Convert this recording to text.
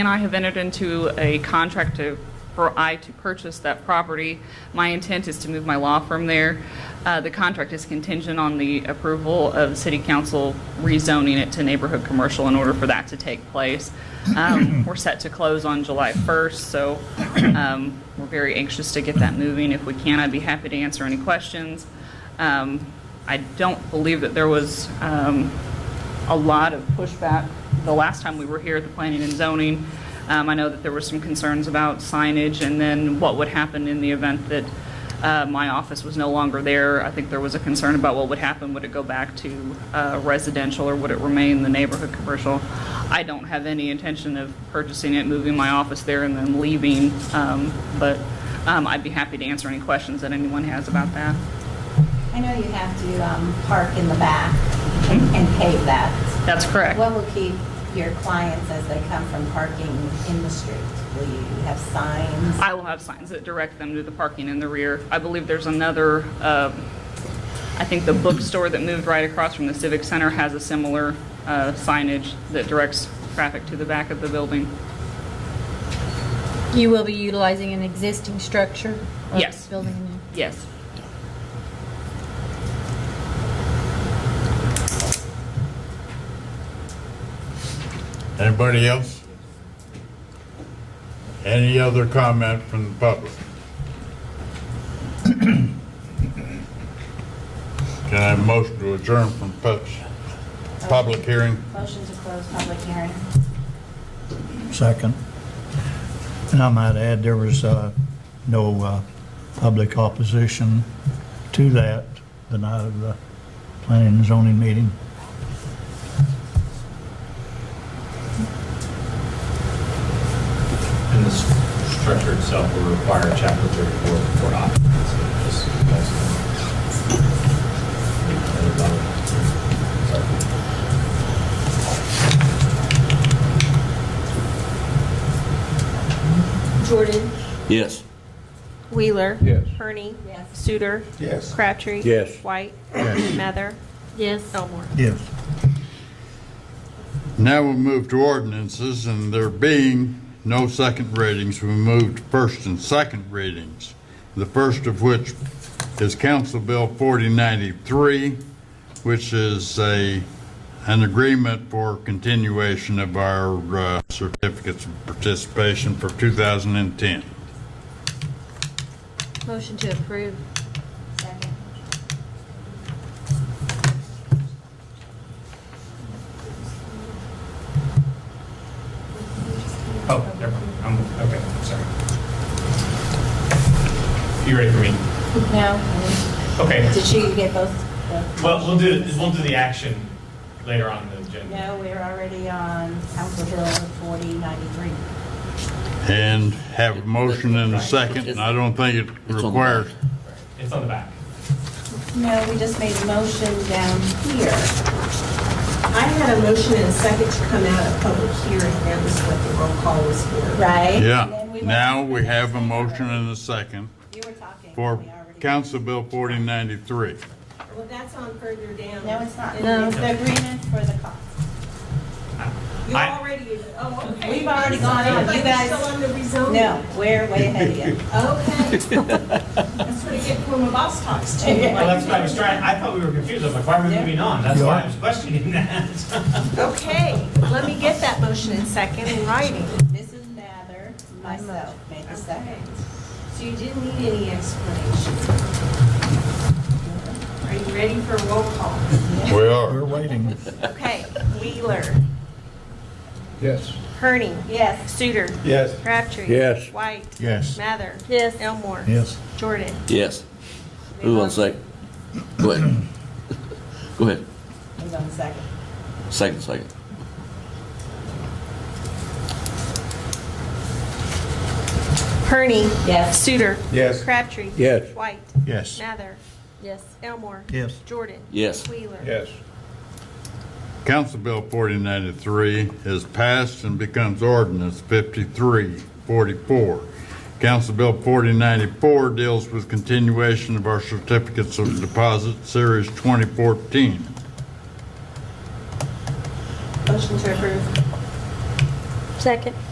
and I have entered into a contract to, for I to purchase that property. My intent is to move my law firm there. Uh, The contract is contingent on the approval of City Council rezoning it to neighborhood commercial in order for that to take place. Um, We're set to close on July 1st, so um, we're very anxious to get that moving. If we can, I'd be happy to answer any questions. Um, I don't believe that there was um, a lot of pushback the last time we were here at the planning and zoning. Um, I know that there were some concerns about signage and then what would happen in the event that uh, my office was no longer there. I think there was a concern about what would happen. Would it go back to uh, residential or would it remain the neighborhood commercial? I don't have any intention of purchasing it, moving my office there and then leaving. um, But um, I'd be happy to answer any questions that anyone has about that. I know you have to um, park in the back and Hmm? and pave that. That's correct. What will keep your clients as they come from parking in the street? Will you have signs? I will have signs that direct them to the parking in the rear. I believe there's another, um, I think the bookstore that moved right across from the Civic Center has a similar uh, signage that directs traffic to the back of the building. You will be utilizing an existing structure? or Yes. Building new? Yes. Anybody else? Any other comment from the public? Can I have a motion to adjourn from pub- public hearing? Motion to close public hearing. Second. And I might add, there was uh, no uh, public opposition to that the night of the planning and zoning meeting. And the s- structure itself will require a chapter 34 for occupancy, just so you guys know. Sorry. Jordan. Yes. Wheeler. Yes. Herney. Yes. Suter. Yes. Crabtree. Yes. White. Mather. Yes. Elmore. Yes. Now we move to ordinances, and there being no second readings, we move to first and second readings. The first of which is Council Bill 4093, which is a, an agreement for continuation of our uh, certificates of participation for 2010. Motion to approve. Second. Oh, never mind. I'm, okay, sorry. You ready for me? No? Okay, Did you get both? both? well, we'll do, we'll do the action later on in the agenda. No, we're already on Council Bill 4093. And have a motion and a second, and I don't think it on the- requires, It's on the back. No, we just made a motion down here. I had a motion and a second to come out of public hearing. That was what the roll call was for. Right? And yeah. then went- Now we have a motion and a second You were talking. for We already- Council Bill 4093. Well, that's on further down. No, it's not. No. It's the agreement for the cost. You I- already, oh, okay. We've already gone on. You guys- Still on the rezoning? No, we're way ahead of you. Okay. That's what I get when my boss talks to Well, me. that's what I was trying, I thought we were confused. I was like, why are we moving on? That's why I was questioning that. Okay, let me get that motion and second in writing. Mrs. Mather, myself, made the second. So you didn't need any explanation. Oh, Are you ready for a roll call? We are. We're waiting. Okay, Wheeler. Yes. Herney. Yes, Suter. Yes. Crabtree. Yes. White. Yes. Mather. Yes. Elmore. Yes. Jordan. Yes. Who wants to say? Go ahead. Go ahead. he's on the second. Second, second. Herney. Yes. Suter. Yes. Crabtree. Yes. White. Yes. Mather. Yes. Elmore. Yes. Jordan. Yes. Wheeler. Council Bill 4093 is passed and becomes ordinance 5344. Council Bill 4094 deals with continuation of our certificates of deposit, Series 2014. Motion to approve. Second.